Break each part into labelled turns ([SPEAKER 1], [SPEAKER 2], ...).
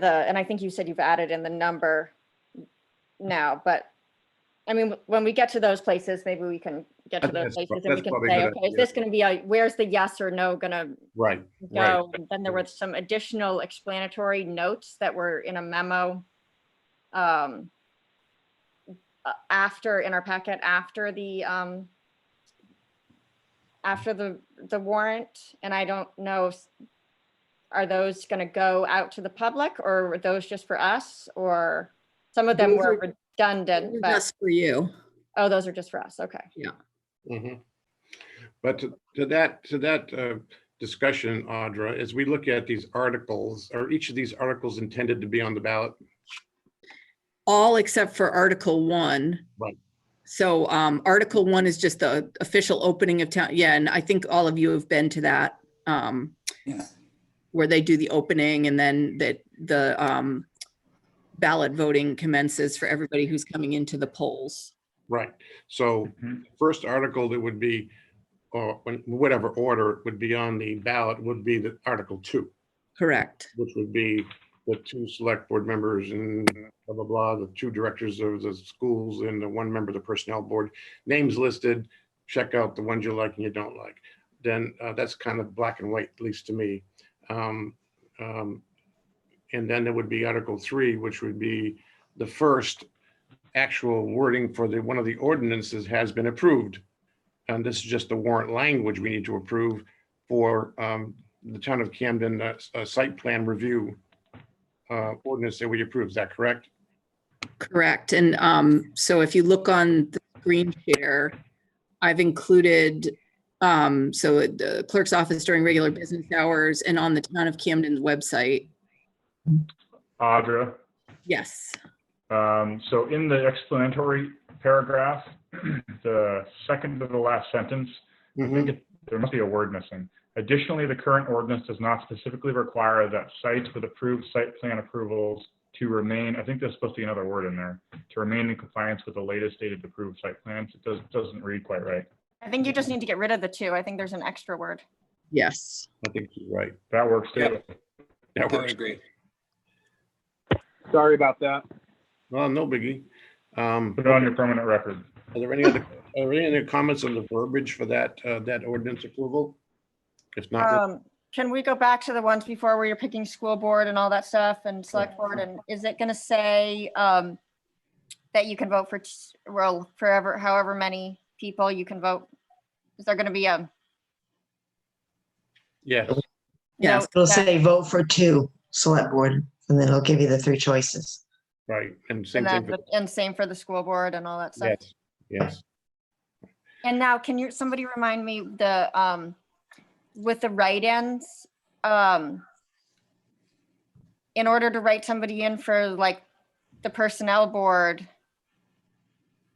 [SPEAKER 1] the, and I think you said you've added in the number now, but I mean, when we get to those places, maybe we can get to those
[SPEAKER 2] That's prob-
[SPEAKER 1] places and we
[SPEAKER 2] that's
[SPEAKER 1] can
[SPEAKER 2] probably a
[SPEAKER 1] say,
[SPEAKER 2] good
[SPEAKER 1] okay, is
[SPEAKER 2] idea.
[SPEAKER 1] this going to be, a where's the yes or no going to
[SPEAKER 2] Right, Right.
[SPEAKER 1] go? And Then there were some additional explanatory notes that were in a memo um, a- after, in our packet, after the, um, after the, the warrant, and I don't know, if- are those going to go out to the public, or were those just for us, or some of them
[SPEAKER 3] Those
[SPEAKER 1] were redundant, but,
[SPEAKER 3] That's for you.
[SPEAKER 1] oh, those are just for us, okay.
[SPEAKER 2] Mhm. But to to that, to that uh, discussion, Audra, as we look at these articles, are each of these articles intended to be on the ballot?
[SPEAKER 3] All except for Article One.
[SPEAKER 2] Right.
[SPEAKER 3] So um, Article One is just the official opening of town. Yeah, and I think all of you have been to that. um,
[SPEAKER 4] Yeah.
[SPEAKER 3] Where they do the opening and then that the um, ballot voting commences for everybody who's coming into the polls.
[SPEAKER 2] Right, so
[SPEAKER 4] Mhm.
[SPEAKER 2] first article that would be, or when- whatever order it would be on the ballot would be the Article Two,
[SPEAKER 3] Correct.
[SPEAKER 2] which would be the two select board members and blah, blah, blah, the two directors of the schools and the one member of the personnel board. Names listed, check out the ones you like and you don't like. Then uh, that's kind of black and white, at least to me. Um, um, And then there would be Article Three, which would be the first actual wording for the, one of the ordinances has been approved. And this is just the warrant language we need to approve for um, the town of Camden uh, s- uh, site plan review uh, ordinance that we approved. Is that correct?
[SPEAKER 3] Correct. And um, so if you look on the screen share, I've included, um, so at the clerk's office during regular business hours and on the town of Camden's website.
[SPEAKER 5] Audra,
[SPEAKER 3] Yes,
[SPEAKER 5] um, so in the explanatory paragraph, the second to the last sentence, I think it- there must be a word missing. Additionally, the current ordinance does not specifically require that sites with approved site plan approvals to remain, I think there's supposed to be another word in there, to remain in compliance with the latest dated approved site plans. It does, doesn't read quite right.
[SPEAKER 1] I think you just need to get rid of the two. I think there's an extra word.
[SPEAKER 3] yes.
[SPEAKER 2] I think you're right.
[SPEAKER 5] That works too.
[SPEAKER 4] Yep.
[SPEAKER 2] That
[SPEAKER 4] I would
[SPEAKER 2] works.
[SPEAKER 4] agree.
[SPEAKER 6] Sorry about that.
[SPEAKER 2] Well, no biggie. Um,
[SPEAKER 5] Put it on your permanent record.
[SPEAKER 2] Are there any other, are there any other comments on the verbiage for that, uh, that ordinance approval? If not,
[SPEAKER 1] Um, can we go back to the ones before where you're picking school board and all that stuff and select board? And is it gonna say, um, that you can vote for, t- well, forever, however many people you can vote? Is there gonna be a?
[SPEAKER 2] yeah,
[SPEAKER 3] Yes.
[SPEAKER 1] note
[SPEAKER 7] It'll
[SPEAKER 1] that-
[SPEAKER 7] say vote for two select board, and then it'll give you the three choices.
[SPEAKER 2] right, and same
[SPEAKER 1] And
[SPEAKER 2] thing,
[SPEAKER 1] that-
[SPEAKER 2] for-
[SPEAKER 1] and same for the school board and all that stuff?
[SPEAKER 2] yes, yes.
[SPEAKER 1] And now, can you, somebody remind me the, um, with the write-ins, um, in order to write somebody in for like the personnel board,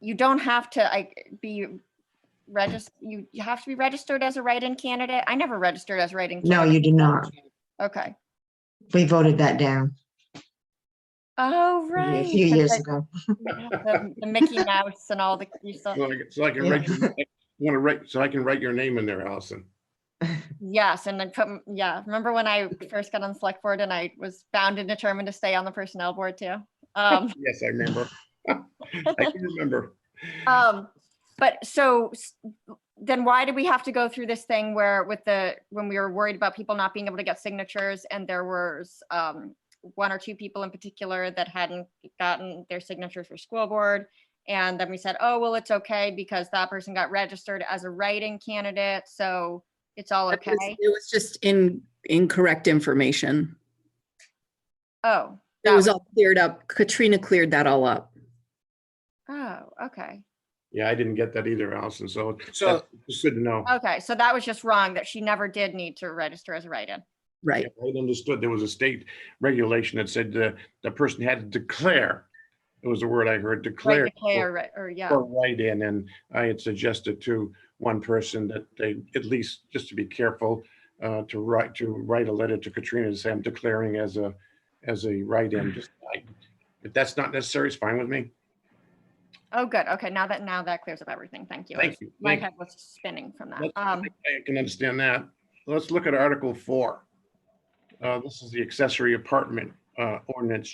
[SPEAKER 1] you don't have to, like, be registered, you, you have to be registered as a write-in candidate? I never registered as a write-in.
[SPEAKER 7] No,
[SPEAKER 1] candidate.
[SPEAKER 7] you do not.
[SPEAKER 1] Okay.
[SPEAKER 7] We voted that down
[SPEAKER 1] Oh,
[SPEAKER 7] a
[SPEAKER 1] right.
[SPEAKER 7] few years
[SPEAKER 1] 'cause
[SPEAKER 7] ago.
[SPEAKER 1] I have The the Mickey Mouse and all the, you saw-
[SPEAKER 2] So I can- so I can write, want to write, so I can write your name in there, Allison.
[SPEAKER 1] Yes, and then put, m- yeah, remember when I first got on the select board and I was bound and determined to stay on the personnel board too? Um,
[SPEAKER 2] Yes, I remember. I can remember.
[SPEAKER 1] um, but so s- then why did we have to go through this thing where with the, when we were worried about people not being able to get signatures and there was, um, one or two people in particular that hadn't gotten their signatures for school board? And then we said, oh, well, it's okay because that person got registered as a writing candidate, so it's all
[SPEAKER 3] It was-
[SPEAKER 1] okay.
[SPEAKER 3] It was just in, incorrect information.
[SPEAKER 1] Oh.
[SPEAKER 3] It
[SPEAKER 1] that
[SPEAKER 3] was all cleared up. Katrina cleared that all up.
[SPEAKER 1] Oh, okay.
[SPEAKER 2] Yeah, I didn't get that either, Allison, so
[SPEAKER 4] So,
[SPEAKER 2] it's good to know.
[SPEAKER 1] Okay, so that was just wrong that she never did need to register as a write-in.
[SPEAKER 3] Right.
[SPEAKER 2] Yeah, I understood there was a state regulation that said the, the person had to declare. It was the word I heard,
[SPEAKER 1] Right,
[SPEAKER 2] declare.
[SPEAKER 1] declare, right, or yeah,
[SPEAKER 2] For write-in, and I had suggested to one person that they, at least, just to be careful, uh, to write, to write a letter to Katrina and say, I'm declaring as a, as a write-in. Just, I- If that's not necessary, it's fine with me.
[SPEAKER 1] oh, good, okay, now that, now that clears up everything, thank you.
[SPEAKER 2] Thank you.
[SPEAKER 1] My
[SPEAKER 2] Thank you.
[SPEAKER 1] head was spinning from that.
[SPEAKER 2] Let's-
[SPEAKER 1] Um,
[SPEAKER 2] I can understand that. Let's look at Article Four. Uh, This is the accessory apartment uh, ordinance